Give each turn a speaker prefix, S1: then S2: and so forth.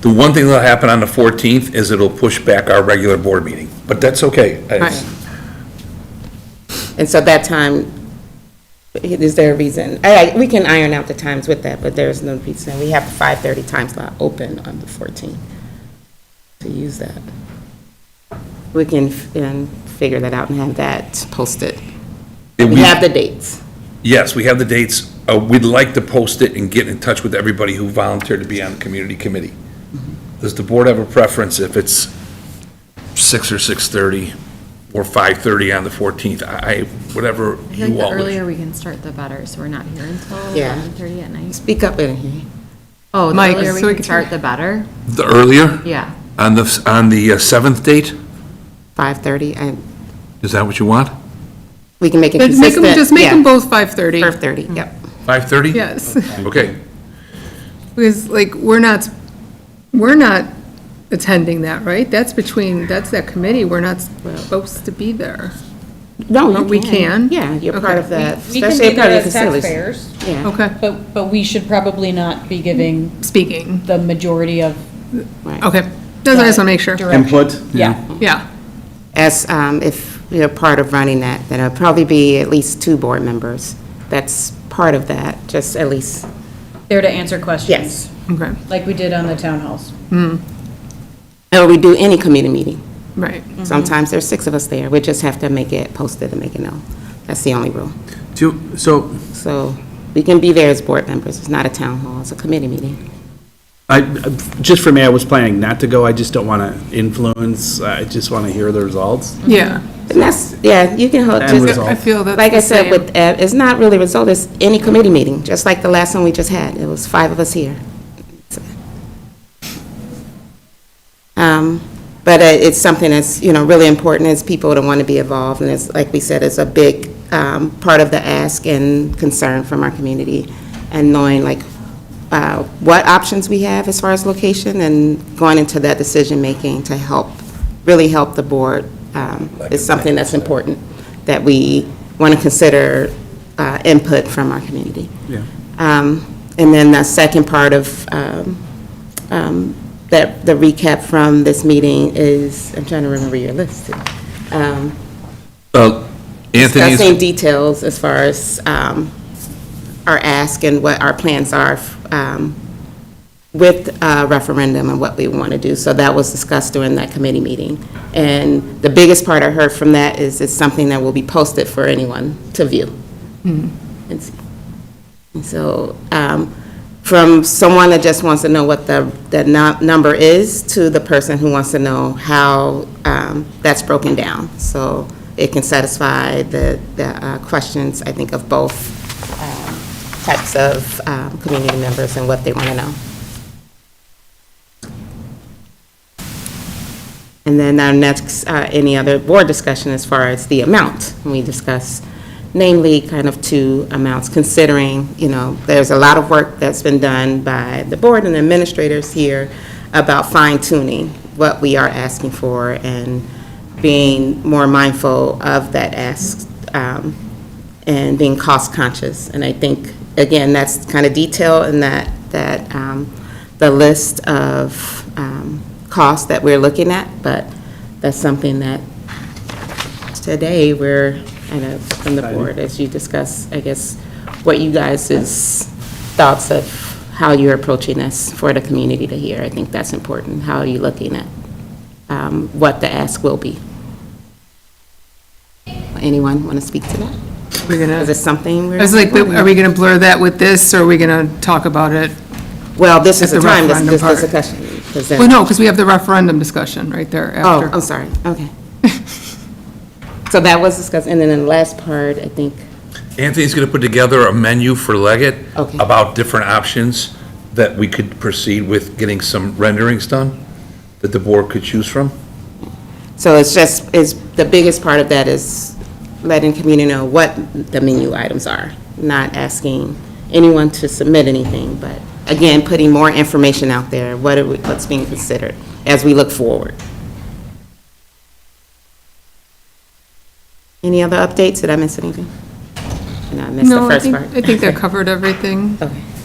S1: The one thing that'll happen on the 14th is it'll push back our regular board meeting, but that's okay. Uh, It's-
S2: Right. And so that time, is there a reason? I, I- we can iron out the times with that, but there's no reason. We have a 5:30 time slot open on the 14th to use that. We can, f- and figure that out and have that posted.
S1: and
S2: We
S1: we-
S2: have the dates.
S1: Yes, we have the dates. Uh, We'd like to post it and get in touch with everybody who volunteered to be on the community committee. Does the board have a preference if it's six or 6:30 or 5:30 on the 14th? I, I- whatever
S3: I feel like
S1: you all
S3: the
S1: wish.
S3: earlier we can start, the better, so we're not here until
S2: Yeah.
S3: 11:30 at night.
S2: Speak up in here.
S3: Oh, the
S4: Mike,
S3: earlier
S4: so
S3: we
S4: we
S3: can
S4: can-
S3: start, the better?
S1: The earlier?
S3: Yeah.
S1: On the, s- on the uh, seventh date?
S2: 5:30, and
S1: Is that what you want?
S2: we can make it
S4: But make
S2: consistent.
S4: them, just make them
S2: yeah.
S4: both 5:30,
S2: 5:30, yep.
S1: 5:30?
S4: yes.
S1: Okay.
S4: Because, like, we're not, we're not attending that, right? That's between, that's that committee, we're not supposed to be there.
S2: No,
S4: But
S2: you
S4: we can.
S2: Yeah, you're part
S4: Okay.
S2: of that.
S5: We can
S2: especially
S5: be there
S2: part of
S5: as
S2: the facilities.
S5: taxpayers,
S2: Yeah,
S4: Okay,
S5: but, but we should probably not be giving
S4: speaking,
S5: the majority of.
S2: right.
S4: okay. That's what I just want to make sure,
S5: direct-
S6: Input?
S5: Yeah,
S4: yeah.
S2: as, um, if you're part of running that, then it'll probably be at least two board members. That's part of that, just at least.
S5: there to answer questions.
S2: Yes.
S4: Okay,
S5: Like we did on the townhouse.
S2: Or we do any committee meeting.
S4: Mm-hmm. right.
S2: Sometimes there's six of us there. We just have to make it posted and make it known. That's the only rule.
S7: Do, so,
S2: So we can be there as board members. It's not a town hall, it's a committee meeting.
S7: I, just for me, I was planning not to go, I just don't want to influence, I just want to hear the results.
S4: Yeah.
S2: And that's, yeah, you can hold,
S7: And
S2: just,
S7: result.
S4: I feel that's
S2: like I
S4: the
S2: said,
S4: same.
S2: with, uh, it's not really result, it's any committee meeting, just like the last one we just had. It was five of us here. Um, But uh, it's something that's, you know, really important, is people to want to be involved, and it's, like we said, it's a big um, part of the ask and concern from our community, and knowing like uh, what options we have as far as location, and going into that decision-making to help, really help the board, um, is something that's important, that we want to consider uh, input from our community.
S7: Yeah.
S2: Um, And then the second part of um, um, that, the recap from this meeting is, I'm trying to remember your list. Um,
S1: Uh, Anthony's.
S2: Discussing details as far as um, our ask and what our plans are um, with uh, referendum and what we want to do. So that was discussed during that committee meeting. And the biggest part I heard from that is it's something that will be posted for anyone to view. And see. And so, um, from someone that just wants to know what the, the nu- number is, to the person who wants to know how, um, that's broken down. So it can satisfy the, the uh, questions, I think, of both um, types of, um, community members and what they want to know. And then our next, uh, any other board discussion as far as the amount. And We discuss namely kind of two amounts, considering, you know, there's a lot of work that's been done by the board and administrators here about fine tuning what we are asking for and being more mindful of that ask um, and being cost conscious. And I think, again, that's kind of detail in that, that um, the list of um, costs that we're looking at, but that's something that today we're, kind of from the board, as you discuss, I guess, what you guys' thoughts of how you're approaching this for the community to hear. I think that's important. How are you looking at um, what the ask will be? Anyone want to speak to that?
S4: We're gonna,
S2: Is it something we're?
S4: I was like, are we gonna blur that with this, or are we gonna talk about it?
S2: Well, this is
S4: Just
S2: the
S4: the
S2: time, this this
S4: referendum
S2: is the discussion. 'cause then-
S4: Well, no, because we have the referendum discussion right there
S2: Oh,
S4: after.
S2: I'm sorry, okay. So that was discussed, and then the last part, I think,
S1: Anthony's going to put together a menu for Leggett
S2: Okay.
S1: about different options that we could proceed with getting some renderings done that the board could choose from.
S2: so it's just, is, the biggest part of that is letting community know what the menu items are, not asking anyone to submit anything, but again, putting more information out there, what are, we- what's being considered as we look forward. Any other updates? Did I miss anything? No, I missed the
S4: No, I
S2: first
S4: think,
S2: part.
S4: I think that covered everything.
S2: Okay.